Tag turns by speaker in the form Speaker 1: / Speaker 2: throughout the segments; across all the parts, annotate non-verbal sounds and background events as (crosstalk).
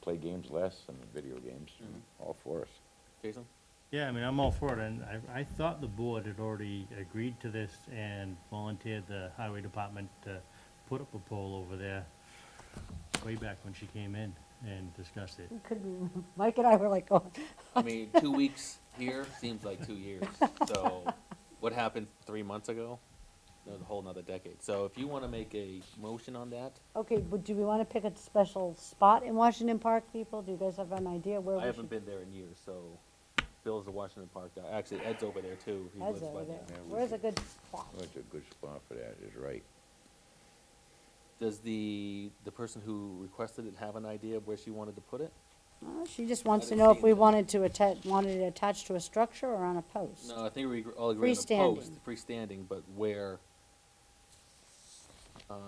Speaker 1: play games less and video games,
Speaker 2: Mm-hmm.
Speaker 1: I'm all for us.
Speaker 3: Jason?
Speaker 4: Yeah, I mean, I'm all for it, and I, I thought the board had already agreed to this and volunteered the highway department to put up a pole over there way back when she came in and discussed it.
Speaker 2: Couldn't, (laughs) Mike and I were like, oh,
Speaker 3: I mean, two weeks here seems like two years. So what happened three months ago? That was a whole nother decade. So if you want to make a motion on that,
Speaker 2: okay, but do we wanna pick a special spot in Washington Park, people? Do you guys have an idea where we
Speaker 3: I
Speaker 2: should?
Speaker 3: haven't been there in years, so Bill's the Washington Park guy. Actually, Ed's over there too. He lives
Speaker 2: That's
Speaker 3: by
Speaker 2: over
Speaker 3: there.
Speaker 1: Yeah,
Speaker 2: there.
Speaker 1: we
Speaker 2: Where's a
Speaker 1: should-
Speaker 2: good spot?
Speaker 1: That's a good spot for that, is right.
Speaker 3: Does the, the person who requested it have an idea of where she wanted to put it?
Speaker 2: Uh, She just wants to
Speaker 3: didn't
Speaker 2: know
Speaker 3: see
Speaker 2: if we
Speaker 3: that.
Speaker 2: wanted to attach, wanted it attached to a structure or on a post.
Speaker 3: No, I think we agree- all agree on the post, freestanding, but where, um,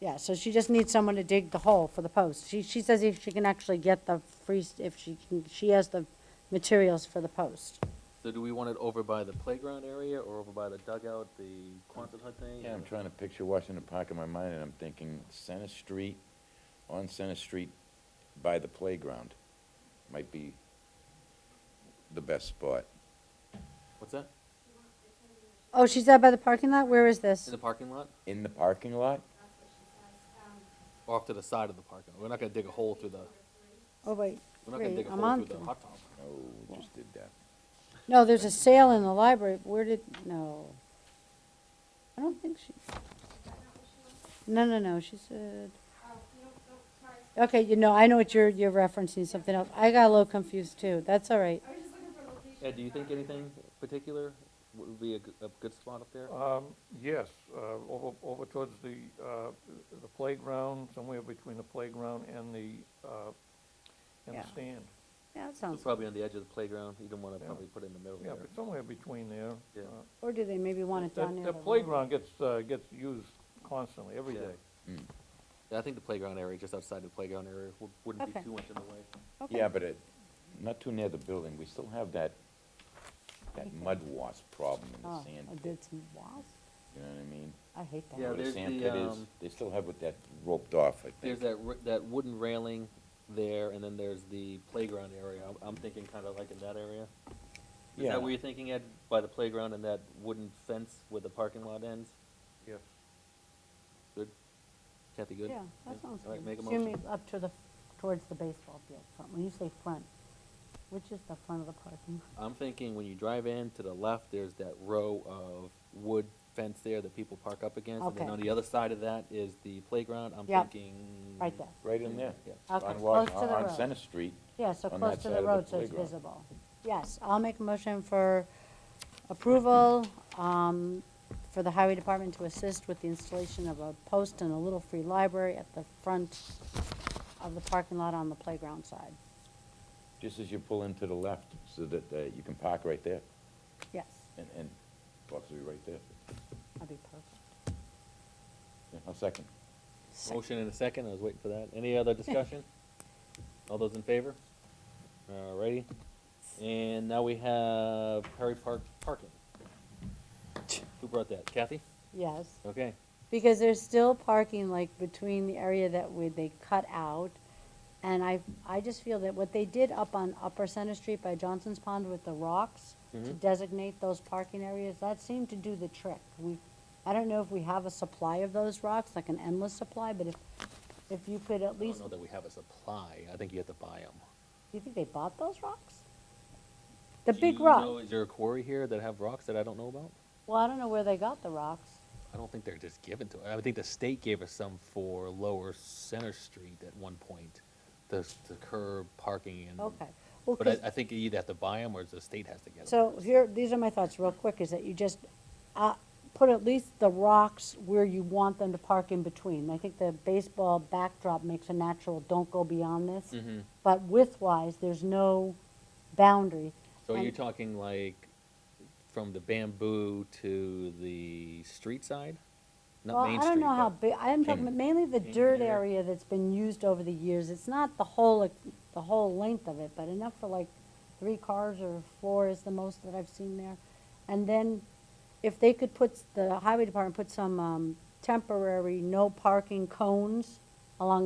Speaker 2: Yeah, so she just needs someone to dig the hole for the post. She, she says if she can actually get the free, if she can, she has the materials for the post.
Speaker 3: so do we want it over by the playground area or over by the dugout, the Quonset hut thing?
Speaker 1: Yeah, I'm
Speaker 3: or-
Speaker 1: trying to picture Washington Park in my mind, and I'm thinking Center Street, on Center Street by the playground might be the best spot.
Speaker 3: What's that?
Speaker 2: Oh, she's out by the parking lot? Where is
Speaker 3: In
Speaker 2: this?
Speaker 3: the parking lot?
Speaker 1: In the parking lot?
Speaker 3: Or off to the side of the parking lot? We're not gonna dig a hole through the,
Speaker 2: Oh, wait,
Speaker 3: we're not gonna
Speaker 2: Great,
Speaker 3: dig a
Speaker 2: I'm
Speaker 3: hole
Speaker 2: on
Speaker 3: through
Speaker 2: to
Speaker 3: the
Speaker 2: it.
Speaker 3: hot tub.
Speaker 1: Oh, we just did that.
Speaker 2: no, there's a sale in the library. Where did, no. I don't think she. No, no, no, she said. Okay, you know, I know what you're, you're referencing, something else. I got a little confused too. That's all right.
Speaker 3: Ed, do you think anything particular would be a, g- a good spot up
Speaker 2: Oh.
Speaker 3: there?
Speaker 5: Um, yes, uh, over, over towards the, uh, the playground, somewhere between the playground and the, uh, and
Speaker 2: Yeah.
Speaker 5: the stand.
Speaker 2: Yeah, that
Speaker 3: It's
Speaker 2: sounds,
Speaker 3: probably on the edge of the playground. You don't wanna
Speaker 5: Yeah.
Speaker 3: probably put it in the middle
Speaker 5: Yeah,
Speaker 3: there.
Speaker 5: but somewhere between there.
Speaker 3: Yeah.
Speaker 5: uh,
Speaker 2: or do they maybe want it
Speaker 5: that-
Speaker 2: down near the?
Speaker 5: That playground gets, uh, gets used constantly, every
Speaker 3: Yeah.
Speaker 5: day.
Speaker 3: Yeah, I think the playground area, just outside the playground area, wou- wouldn't be
Speaker 2: Okay.
Speaker 3: too much in the way.
Speaker 2: Okay.
Speaker 1: Yeah, but it, not too near the building, we still have that, that mud wasp problem in the
Speaker 2: Oh,
Speaker 1: sand
Speaker 2: I
Speaker 1: pit,
Speaker 2: did some wasp.
Speaker 1: you know what I mean?
Speaker 2: I hate that.
Speaker 3: Yeah,
Speaker 1: Where the
Speaker 3: there's
Speaker 1: sand
Speaker 3: the,
Speaker 1: pit is,
Speaker 3: um,
Speaker 1: They still have with that roped off, I think.
Speaker 3: There's that, r- that wooden railing there, and then there's the playground area. I'm, I'm thinking kinda like in that area. Is
Speaker 1: Yeah.
Speaker 3: that where you're thinking, Ed, by the playground and that wooden fence where the parking lot ends?
Speaker 5: Yes.
Speaker 3: Good? Kathy, good?
Speaker 2: Yeah, that sounds
Speaker 3: All right,
Speaker 2: good.
Speaker 3: make a
Speaker 2: Excuse me,
Speaker 3: motion.
Speaker 2: up to the, towards the baseball field front, when you say front, which is the front of the parking? lot?
Speaker 3: I'm thinking when you drive in to the left, there's that row of wood fence there that people park up against. And then
Speaker 2: Okay.
Speaker 3: on the other side of that is the playground. I'm
Speaker 2: Yep,
Speaker 3: thinking.
Speaker 2: Right there.
Speaker 1: Right in there.
Speaker 3: Yeah.
Speaker 2: Okay,
Speaker 1: On
Speaker 2: close
Speaker 1: Wash,
Speaker 2: to the
Speaker 1: on
Speaker 2: road.
Speaker 1: Center Street,
Speaker 2: Yeah, so
Speaker 1: on
Speaker 2: close
Speaker 1: that
Speaker 2: to
Speaker 1: side
Speaker 2: the
Speaker 1: of the
Speaker 2: road, so it's
Speaker 1: playground.
Speaker 2: visible. Yes, I'll make a motion for approval, um, for the highway department to assist with the installation of a post and a little free library at the front of the parking lot on the playground side.
Speaker 1: just as you pull in to the left, so that, uh, you can park right there,
Speaker 2: Yes,
Speaker 1: and, and, possibly right there.
Speaker 2: that'd be perfect.
Speaker 1: Yeah, I'll second.
Speaker 3: Motion in a second, I was waiting for that. Any other
Speaker 2: (laughs)
Speaker 3: discussion? All those in favor? Alrighty. And now we have Perry Park parking. Who brought that? Kathy?
Speaker 2: Yes.
Speaker 3: Okay.
Speaker 2: Because there's still parking like between the area that we, they cut out. And I, I just feel that what they did up on Upper Center Street by Johnson's Pond with the rocks to
Speaker 3: Mhm.
Speaker 2: designate those parking areas, that seemed to do the trick. We, I don't know if we have a supply of those rocks, like an endless supply, but if, if you could at
Speaker 3: I don't
Speaker 2: least,
Speaker 3: know Oh, that we have a supply. I think you have to buy them.
Speaker 2: you think they bought those rocks? The big rock,
Speaker 3: Is there a quarry here that have rocks that I don't know about?
Speaker 2: well, I don't know where they got the rocks.
Speaker 3: I don't think they're just given to, I think the state gave us some for Lower Center Street at one point, the, the curb parking and.
Speaker 2: Okay. Well,
Speaker 3: Mm-hmm. But
Speaker 2: 'cause-
Speaker 3: I, I think you either have to buy them or the state has to get them.
Speaker 2: So here, these are my thoughts real quick, is that you just, uh, put at least the rocks where you want them to park in between. I think the baseball backdrop makes a natural, don't go beyond this.
Speaker 3: Mhm.
Speaker 2: But width-wise, there's no boundary.
Speaker 3: So you're
Speaker 2: And-
Speaker 3: talking like from the bamboo to the street side?
Speaker 2: Well,
Speaker 3: Not Main
Speaker 2: I
Speaker 3: Street.
Speaker 2: don't know how
Speaker 3: but-
Speaker 2: big, I'm talking
Speaker 3: King-
Speaker 2: about mainly the
Speaker 3: King
Speaker 2: dirt
Speaker 3: area.
Speaker 2: area that's been used over the years. It's not the whole, the whole length of it, but enough for like three cars or four is the most that I've seen there. And then if they could put, s- the highway department put some, um, temporary no parking cones along